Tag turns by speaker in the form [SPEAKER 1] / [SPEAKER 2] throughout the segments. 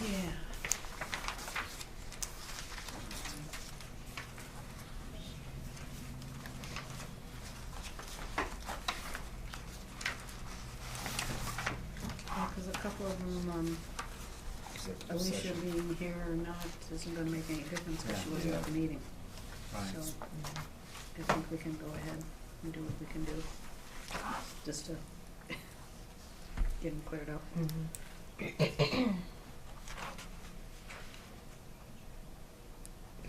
[SPEAKER 1] Yeah. Because Oh, a couple of them, um,
[SPEAKER 2] Executive
[SPEAKER 1] Alicia
[SPEAKER 2] session.
[SPEAKER 1] being here or not isn't gonna make any difference because she
[SPEAKER 2] Yeah.
[SPEAKER 1] wasn't at the meeting.
[SPEAKER 2] Right.
[SPEAKER 1] So I think we can go ahead and do what we can do, just to get them cleared up.
[SPEAKER 2] Mm-hmm.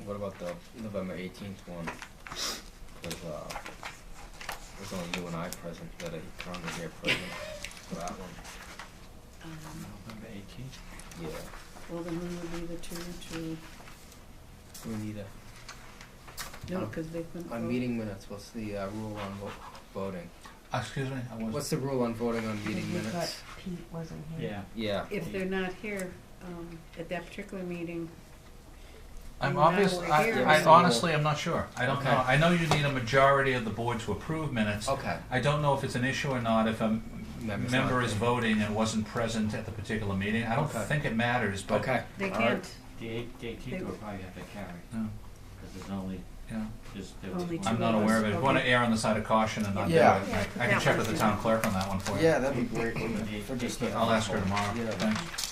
[SPEAKER 3] What about the November eighteenth one? With uh, there's only you and I present, that are currently here present for that one.
[SPEAKER 1] Um,
[SPEAKER 2] November eighteenth?
[SPEAKER 3] Yeah,
[SPEAKER 1] Well, then we would be the two to,
[SPEAKER 3] we need a,
[SPEAKER 1] no,
[SPEAKER 3] Um,
[SPEAKER 1] because they've been.
[SPEAKER 3] on meeting minutes, what's the uh, rule on vo- voting?
[SPEAKER 2] Excuse me, I
[SPEAKER 3] What's the rule on voting on
[SPEAKER 4] Because
[SPEAKER 3] meeting
[SPEAKER 4] we thought
[SPEAKER 3] minutes?
[SPEAKER 4] Pete wasn't here.
[SPEAKER 2] Yeah,
[SPEAKER 3] Yeah,
[SPEAKER 1] If they're not here, um, at that particular meeting,
[SPEAKER 5] I'm
[SPEAKER 1] Now
[SPEAKER 5] obvious,
[SPEAKER 1] we're
[SPEAKER 5] I,
[SPEAKER 1] here.
[SPEAKER 5] I honestly, I'm not sure. I don't
[SPEAKER 3] Okay.
[SPEAKER 5] know. I know you need a majority of the board to approve minutes.
[SPEAKER 3] okay,
[SPEAKER 5] I don't know if it's an issue or not, if a m-
[SPEAKER 3] Member's
[SPEAKER 5] member
[SPEAKER 3] not
[SPEAKER 5] is
[SPEAKER 3] there.
[SPEAKER 5] voting and wasn't present at the particular meeting. I don't
[SPEAKER 3] Okay.
[SPEAKER 5] think it matters, but.
[SPEAKER 3] okay,
[SPEAKER 1] they
[SPEAKER 3] All right.
[SPEAKER 1] can't,
[SPEAKER 6] The eight- the eighteenth will probably have to carry,
[SPEAKER 5] No,
[SPEAKER 6] because there's only,
[SPEAKER 5] yeah.
[SPEAKER 6] just, there was
[SPEAKER 1] Only
[SPEAKER 6] one.
[SPEAKER 1] two
[SPEAKER 5] I'm not aware of it.
[SPEAKER 1] Okay.
[SPEAKER 5] Want to err on the side of caution and not do it.
[SPEAKER 2] Yeah.
[SPEAKER 1] Yeah,
[SPEAKER 5] I-
[SPEAKER 1] put
[SPEAKER 5] I
[SPEAKER 1] that
[SPEAKER 5] can
[SPEAKER 1] one
[SPEAKER 5] check with the
[SPEAKER 1] in.
[SPEAKER 5] town clerk on that one for you.
[SPEAKER 3] yeah, that'd be great, wouldn't it?
[SPEAKER 6] Eight-
[SPEAKER 3] for just
[SPEAKER 6] eight-
[SPEAKER 3] the-
[SPEAKER 5] I'll ask her tomorrow.
[SPEAKER 3] Yeah.
[SPEAKER 5] Thanks.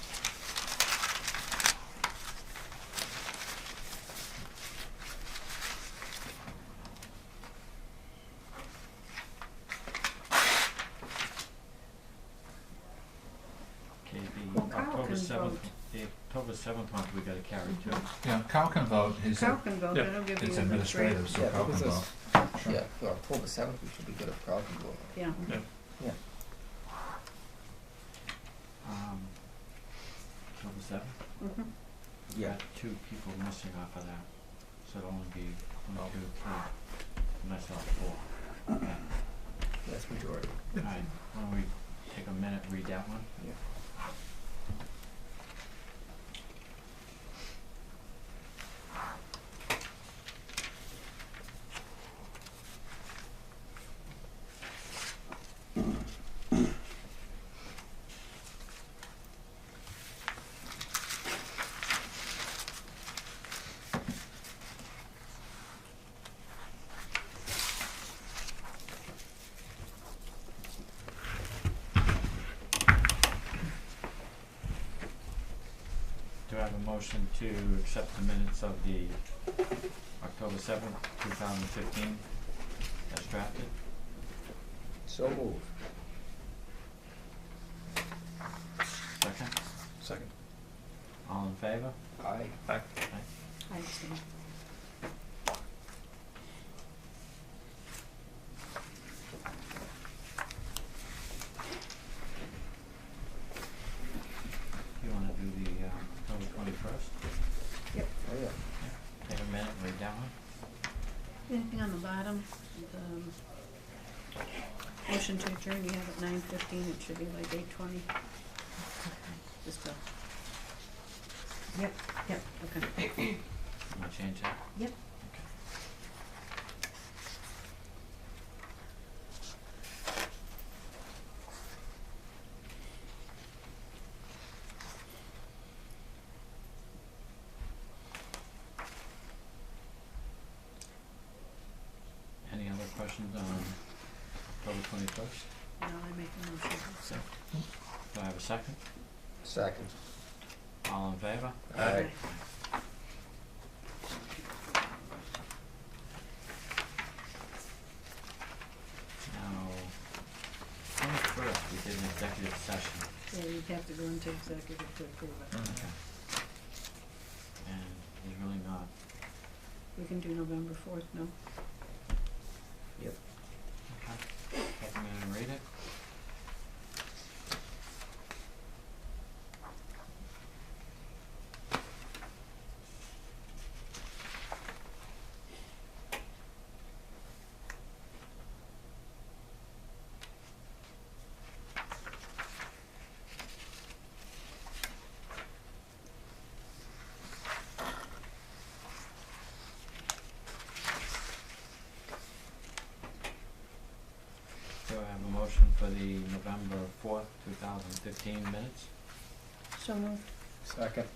[SPEAKER 6] Okay, the
[SPEAKER 1] Well, Kyle
[SPEAKER 6] October
[SPEAKER 1] can
[SPEAKER 6] seventh,
[SPEAKER 1] vote. Mm-hmm.
[SPEAKER 6] the October seventh one, we gotta carry too.
[SPEAKER 5] Yeah, Cal can vote. His,
[SPEAKER 1] Cal can vote, that'll give you
[SPEAKER 5] it's
[SPEAKER 1] the three.
[SPEAKER 5] administrative, so
[SPEAKER 3] Yeah,
[SPEAKER 5] Cal can
[SPEAKER 3] because
[SPEAKER 5] vote.
[SPEAKER 3] it's-
[SPEAKER 5] Sure.
[SPEAKER 3] Yeah, for October seventh, we should be good at problem voting.
[SPEAKER 1] Yeah,
[SPEAKER 6] Um, October seventh?
[SPEAKER 1] mhm.
[SPEAKER 3] Yeah.
[SPEAKER 6] Two people missing off of that, so it'll only be one,
[SPEAKER 3] Oh.
[SPEAKER 6] two, three, myself, four. Okay.
[SPEAKER 3] That's majority.
[SPEAKER 6] All right, why don't we take a minute, read that one?
[SPEAKER 3] Yeah.
[SPEAKER 6] Do I have a motion to accept the minutes of the October seventh, two thousand fifteen, as drafted?
[SPEAKER 3] So moved.
[SPEAKER 6] Second?
[SPEAKER 2] second.
[SPEAKER 6] All in favor?
[SPEAKER 3] Aye.
[SPEAKER 1] I see.
[SPEAKER 6] You wanna do the, um, October twenty-first?
[SPEAKER 3] Oh, yeah.
[SPEAKER 6] Take a minute, read that one?
[SPEAKER 1] Anything on the bottom, um, motion to adjourn, you have at nine fifteen, it should be like eight twenty. Just a. Yep, yep, okay.
[SPEAKER 6] You wanna change that?
[SPEAKER 1] Yep.
[SPEAKER 6] Okay. Any other questions on October twenty-first?
[SPEAKER 1] Now I make a motion. So,
[SPEAKER 6] Do I have a second?
[SPEAKER 3] Second.
[SPEAKER 6] All in favor?
[SPEAKER 3] Aye.
[SPEAKER 1] okay.
[SPEAKER 6] Now, twenty-first, we did an executive session.
[SPEAKER 1] Yeah, you'd have to go into executive to approve
[SPEAKER 5] Mm.
[SPEAKER 1] it.
[SPEAKER 6] Okay. And there's really not,
[SPEAKER 1] We can do November fourth, no?
[SPEAKER 6] okay, I'm gonna read it. Do I have a motion for the November fourth, two thousand fifteen minutes?
[SPEAKER 1] So moved.
[SPEAKER 3] Second.